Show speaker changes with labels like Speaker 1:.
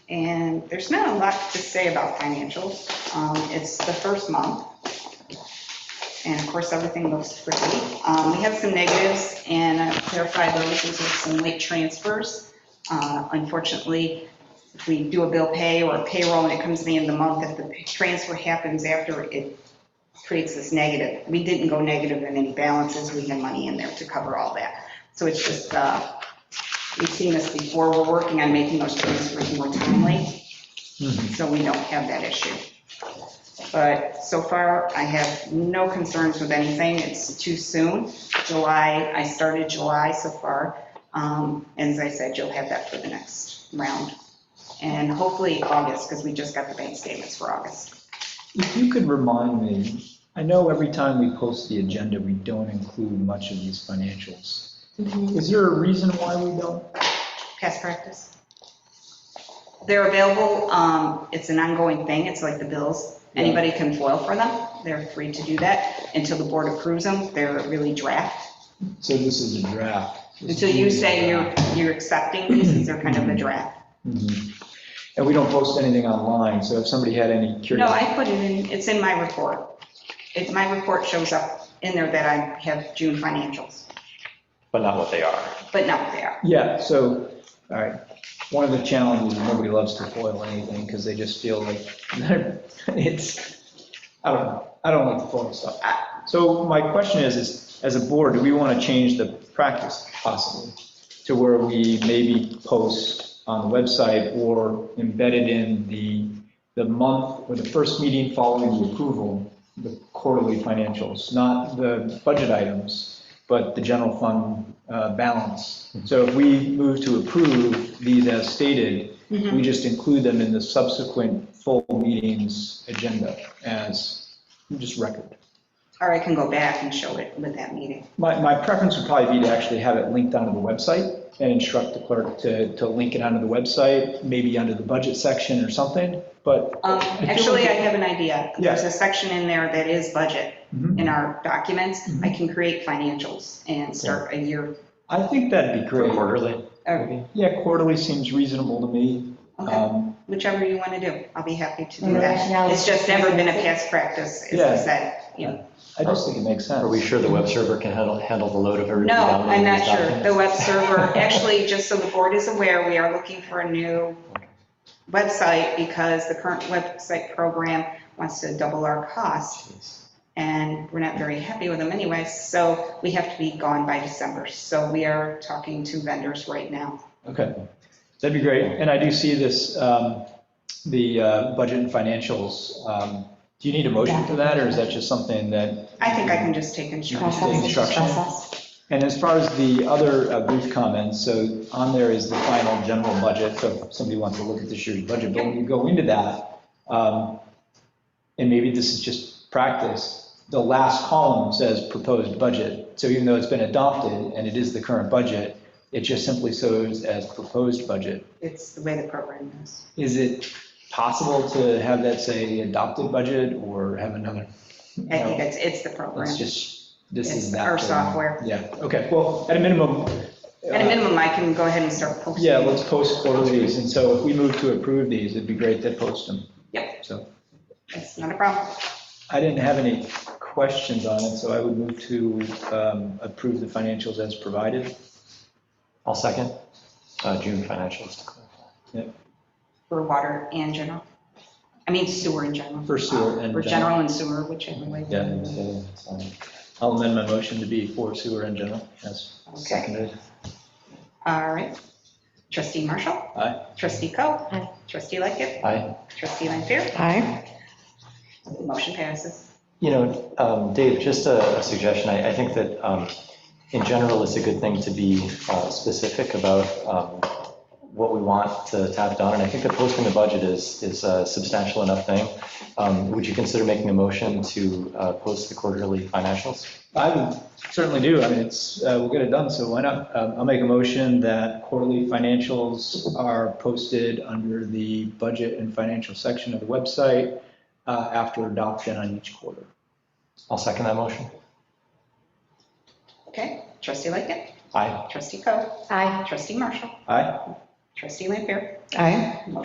Speaker 1: And there's not a lot to say about financials. Um, It's the first month. And of course, everything looks pretty. Um, We have some negatives and I clarified those. These are some late transfers. Uh, Unfortunately, if we do a bill pay or a payroll and it comes at the end of the month, if the transfer happens after, it creates this negative. We didn't go negative in any balances. We had money in there to cover all that. So it's just uh, We've seen this before, we're working on making those transfers more timely,
Speaker 2: Mm-hmm.
Speaker 1: so we don't have that issue. But so far, I have no concerns with anything, it's too soon. July, I started July so far, Um, and as I said, you'll have that for the next round. And hopefully August, because we just got the bank statements for August.
Speaker 2: If you could remind me, I know every time we post the agenda, we don't include much of these financials. Is there a reason why we don't?
Speaker 1: Past practice? They're available, um, it's an ongoing thing, it's like the bills, anybody can foil for them, they're free to do that until the board approves them, they're really draft.
Speaker 2: So this is a draft.
Speaker 1: Until you say you're, you're accepting these, these are kind of a draft.
Speaker 2: Mhm. And we don't post anything online, so if somebody had any
Speaker 1: No,
Speaker 2: curiosity.
Speaker 1: I put it in, it's in my report. It, my report shows up in there that I have June financials,
Speaker 3: but not what they are.
Speaker 1: but not there.
Speaker 2: Yeah, so, all right, one of the challenges, is nobody loves to foil anything, because they just feel like, it's, I don't know, I don't like to foil stuff. So my question is, is as a board, do we want to change the practice possibly? To where we maybe post on the website or embedded in the, the month or the first meeting following the approval, the quarterly financials, not the budget items, but the general fund uh, balance. So if we move to approve these as stated, we just include them in the subsequent full meetings agenda as just record.
Speaker 1: Or I can go back and show it with that meeting.
Speaker 2: My, my preference would probably be to actually have it linked onto the website and instruct the clerk to, to link it onto the website, maybe under the budget section or something, but,
Speaker 1: Um, Actually, I have an idea.
Speaker 2: Yeah.
Speaker 1: There's a section in there that is budget
Speaker 2: Mhm.
Speaker 3: Mm-hmm.
Speaker 1: in our documents. I
Speaker 2: Mhm.
Speaker 1: can create financials and start a year.
Speaker 2: I think
Speaker 3: Uh,
Speaker 2: that'd be great.
Speaker 3: Quarterly,
Speaker 1: or-
Speaker 3: maybe?
Speaker 2: Yeah, quarterly seems reasonable to me.
Speaker 3: Uh,
Speaker 1: Okay,
Speaker 2: Um,
Speaker 1: whichever you want to do. I'll be happy to do
Speaker 4: And
Speaker 1: that.
Speaker 4: rationale
Speaker 1: It's
Speaker 4: is-
Speaker 1: just never been a past practice, as I
Speaker 2: Yeah.
Speaker 1: said. you know.
Speaker 2: I just think it makes sense.
Speaker 3: Are we sure the web server can handle, handle the load of everybody
Speaker 1: No, I'm
Speaker 3: downloading
Speaker 1: not
Speaker 3: these
Speaker 1: sure. The
Speaker 3: documents?
Speaker 1: web server, actually, just so the board is aware, we are looking for a new website because the current website program wants to double our cost.
Speaker 3: Jeez.
Speaker 1: and we're not very happy with them anyway, so we have to be gone by December. So we are talking to vendors right now.
Speaker 2: Okay, that'd be great. And I do see this, um, the uh, budget and financials. um, Do you need a motion for that, or is that just something that?
Speaker 1: I think I can just take insurance.
Speaker 4: Process,
Speaker 2: Instruction.
Speaker 4: process.
Speaker 2: And as far as the other uh, brief comments, so on there is the final general budget, so if somebody wants to look at this year's budget, but when you go into that, um, and maybe this is just practice, the last column says proposed budget. So even though it's been adopted and it is the current budget, it just simply shows as proposed budget.
Speaker 1: It's the way the program is.
Speaker 2: Is it possible to have that say adopted budget or have another?
Speaker 1: I think it's, it's the program.
Speaker 2: It's just, this
Speaker 1: It's
Speaker 2: is that.
Speaker 1: our
Speaker 2: thing.
Speaker 1: software.
Speaker 2: Yeah, okay, well, at a minimum. uh,
Speaker 1: At a minimum, I can go ahead and start posting.
Speaker 2: Yeah, let's post quarterlies, and so if we move to approve these, it'd be great to post them.
Speaker 1: Yep.
Speaker 2: So
Speaker 1: It's not a problem.
Speaker 2: I didn't have any questions on it, so I would move to um, approve the financials as provided.
Speaker 3: I'll second, Uh, June financials to clarify.
Speaker 1: For water and general. I mean sewer in general.
Speaker 2: For sewer and
Speaker 1: For general and sewer, whichever way.
Speaker 2: Yeah, I'll amend my motion to be for sewer in general, yes.
Speaker 1: Okay,
Speaker 3: Seconded.
Speaker 1: all right. Trustee Marshall?
Speaker 2: Aye.
Speaker 1: Trustee Coe?
Speaker 4: Aye.
Speaker 1: Trustee Lickett?
Speaker 3: I,
Speaker 1: Trustee Lampier?
Speaker 4: Aye.
Speaker 1: Motion passes.
Speaker 3: you know, um, Dave, just a a suggestion, I, I think that um, in general, it's a good thing to be uh, specific about um, what we want to to have done, and I think that posting the budget is, is a substantial enough thing. Um, Would you consider making a motion to uh, post the quarterly financials?
Speaker 2: I would certainly do, I mean, it's, uh, we'll get it done, so why not? Um, I'll make a motion that quarterly financials are posted under the budget and financial section of the website uh, after adoption on each quarter.
Speaker 3: I'll second that motion.
Speaker 1: Okay, trustee Lickett,
Speaker 3: Aye.
Speaker 1: trustee Coe,
Speaker 4: Aye.
Speaker 1: trustee Marshall,
Speaker 2: Aye?
Speaker 1: trustee Lampier.
Speaker 4: Aye.